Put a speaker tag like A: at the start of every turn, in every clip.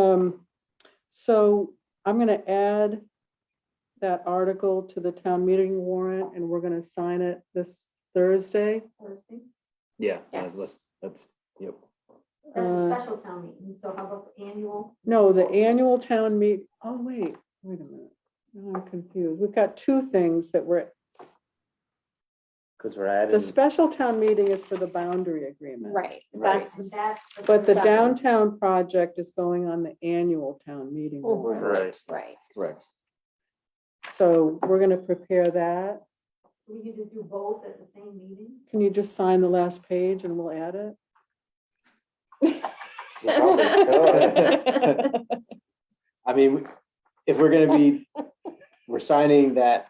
A: Um, so I'm gonna add that article to the town meeting warrant and we're gonna sign it this Thursday.
B: Yeah,
C: Yeah.
B: let's- let's, that's, yep.
C: That's
A: Uh,
C: a special town meeting, so how about the annual?
A: No, the annual town meet, oh, wait, wait a minute. Now I'm confused. We've got two things that we're,
B: Because we're
A: the
B: adding,
A: special town meeting is for the boundary agreement.
C: Right,
B: Right.
C: that's, that's.
A: But the
C: separate-
A: downtown project is going on the annual town meeting. warrant.
B: right,
C: Right,
B: correct.
A: So we're gonna prepare that.
C: we could just do both at the same meeting?
A: Can you just sign the last page and we'll add it?
B: We probably could. I mean, if we're gonna be, we're signing that,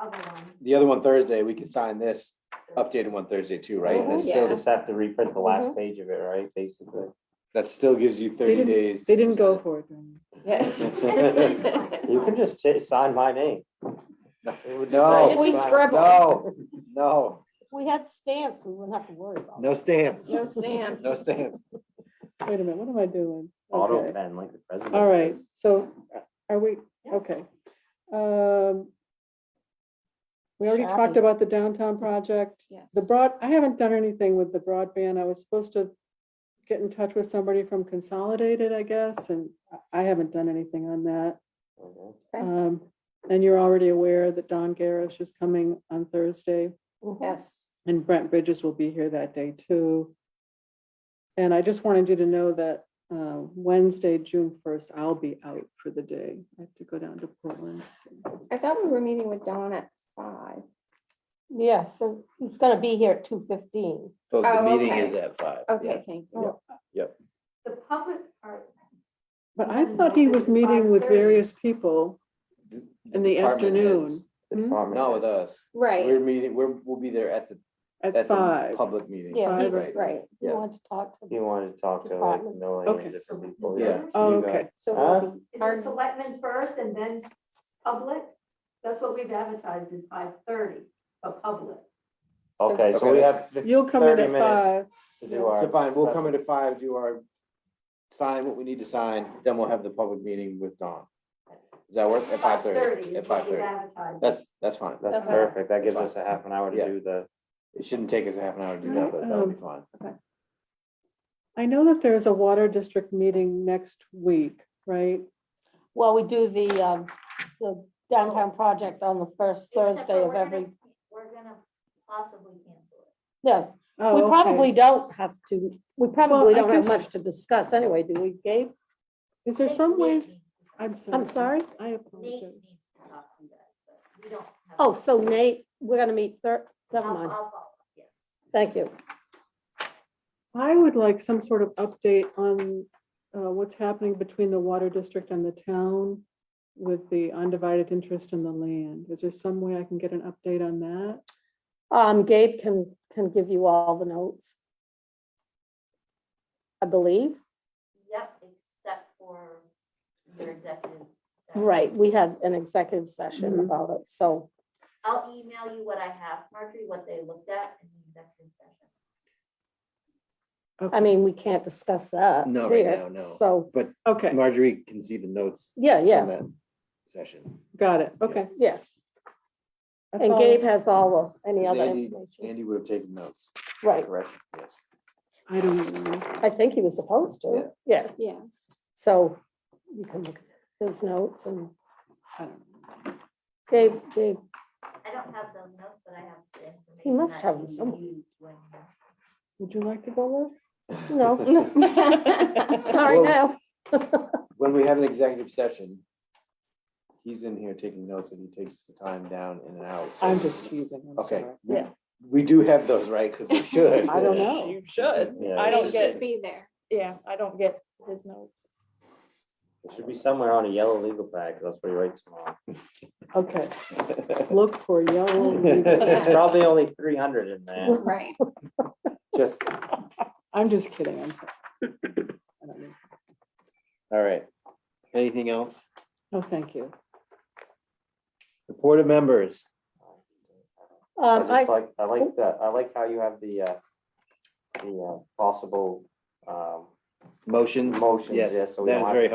C: Other one.
B: the other one Thursday, we can sign this updated one Thursday too, right?
C: Mhm.
A: Oh,
B: That's
D: You'll
B: still,
D: just have to reprint the
E: Mm-hmm.
D: last page of it, right, basically?
B: that still gives you
A: They
B: thirty
A: didn't-
B: days. to
A: They didn't go
B: present
A: for it. didn't
D: You can just si- sign my name.
B: it. No.
D: Oh,
E: If we
B: no,
E: scribble.
B: No, no,
E: We had stamps, we wouldn't have to worry about.
B: no stamps,
E: No stamps.
B: no stamps.
A: they? Wait a minute, what am I doing?
D: Auto
A: Okay.
D: pen like the president.
A: All right,
D: does.
A: so are we, okay. Um, We already talked
E: Shopping.
A: about the downtown project.
E: Yes.
A: The broad, I haven't done anything with the broadband. I was supposed to get in touch with somebody from Consolidated, I guess, and I- I haven't done anything on that.
D: Mhm.
E: Okay.
A: Um, And you're already aware that Don Garrish is coming on Thursday.
E: Yes.
A: And Brent Bridges will be here that day too. And I just wanted you to know that uh, Wednesday, June first, I'll be out for the day. I have to go down to Portland.
F: I thought we were meeting with Dawn at five.
E: Yeah, so he's gonna be here at two fifteen.
B: So the
F: Oh,
B: meeting
F: okay.
B: is at five. yeah.
F: Okay, Oh, thank you.
C: The public part,
A: But I thought he was meeting with various people. In the
B: Department heads.
A: afternoon.
D: The
A: Hmm?
D: department
B: Not with
D: head.
B: us.
F: Right,
B: We're meeting, we're, we'll be there at the,
A: at
B: at the
A: five.
B: public meeting.
E: Yeah,
A: Five,
E: he's,
A: right.
E: right, he
B: Yeah.
E: wanted to talk to.
D: He wanted to talk to like
E: Department.
D: millions
A: Okay.
D: of different people.
B: Yeah.
A: Oh,
D: You got-
A: Okay,
E: So
D: Huh?
E: we'll be,
C: is
F: Pardon?
C: it selectmen first and then public? That's what we've advertised is five thirty, a public.
D: Okay,
B: Okay,
D: so we have fif-
A: you'll come in
D: 30
A: at five.
D: minutes. to do our.
B: So fine, we'll come in
D: presentation.
B: at five, do our, sign what we need to sign, then we'll have the public meeting with Dawn. Does that work? At five thirty? At
C: is what
B: five
C: we've
B: thirty.
C: advertised.
B: That's, that's fine.
D: That's
E: Okay.
D: perfect. That gives
B: Fine.
D: us a half an hour to
B: Yeah.
D: do the.
B: It shouldn't take us a half an hour to do that, but that'll be fine.
A: I know that there's a water district meeting next week, right?
E: well, we do the, um, the downtown project on the first
G: Except
E: Thursday
G: for
E: of
G: we're gonna-
E: every,
G: We're gonna possibly cancel it.
E: yeah,
A: Oh,
E: we
A: okay.
E: probably don't have to, we probably
A: I
E: don't have
A: guess-
E: much to discuss anyway, do we, Gabe?
A: Is there
G: Nate-
A: some way,
G: Nate needs to
A: I'm sorry.
E: I'm sorry?
A: I
G: talk- Nate
A: apologize.
G: needs to talk to you guys, but we don't. have-
E: Oh, so Nate, we're gonna meet thir, never
G: I'll-
E: mind,
G: I'll follow up, yeah.
E: thank you.
A: I would like some sort of update on uh, what's happening between the water district and the town with the undivided interest in the land. Is there some way I can get an update on that?
E: Um, Gabe can, can give you all the notes. I believe,
G: Yep, except for your executive. session.
E: right, we had an executive session
A: Mhm.
E: about it, so,
G: I'll email you what I have, Marjorie, what they looked at in the executive session.
E: I
A: Okay.
E: mean, we can't discuss that.
B: No, right
E: here,
B: now, no.
E: So,
A: Okay,
B: Marjorie can see the notes
E: yeah,
B: from
E: yeah,
B: that session.
A: got it. Okay.
E: yeah,
A: that's
E: and
A: all.
E: Gabe has all of, any
B: Does
E: other
B: Andy-
E: information,
B: Andy would have taken notes,
E: right,
B: correct? Yes.
A: I don't know.
E: I think he was supposed to, yeah,
F: yeah.
E: so you can look at his notes and
A: I don't know.
E: Gabe, Gabe,
G: I don't have the notes, but I have the information.
E: must
G: that
E: have them
G: you
E: somewhere.
G: used when you-
E: would you like to go there? No,
F: All
E: sorry,
B: Well-
E: no,
B: When we have an executive session, he's in here taking notes and he takes the time down in and out. so-
A: I'm just teasing. I'm
B: Okay.
A: sorry.
B: we-
E: Yeah.
B: We do have those, right? Because we should.
A: I don't know.
H: You should.
D: Yeah.
H: I don't
F: They
H: get-
F: should Be there.
H: Yeah, I don't get his notes.
D: It should be somewhere on a yellow legal pad, 'cause that's what he writes them on.
A: Okay, look for yellow.
D: There's probably only three hundred in there.
F: Right.
B: Just,
A: I'm just kidding. I'm sorry. I don't know.
B: all right. Anything else?
A: No, thank you.
B: Report of members.
D: I
E: um, I,
D: just like, I like that. I like how you have the, uh, the, uh, possible, um,
B: motions?
D: Motions, yes, so we
B: That
D: don't
B: is
D: have
B: very
D: to-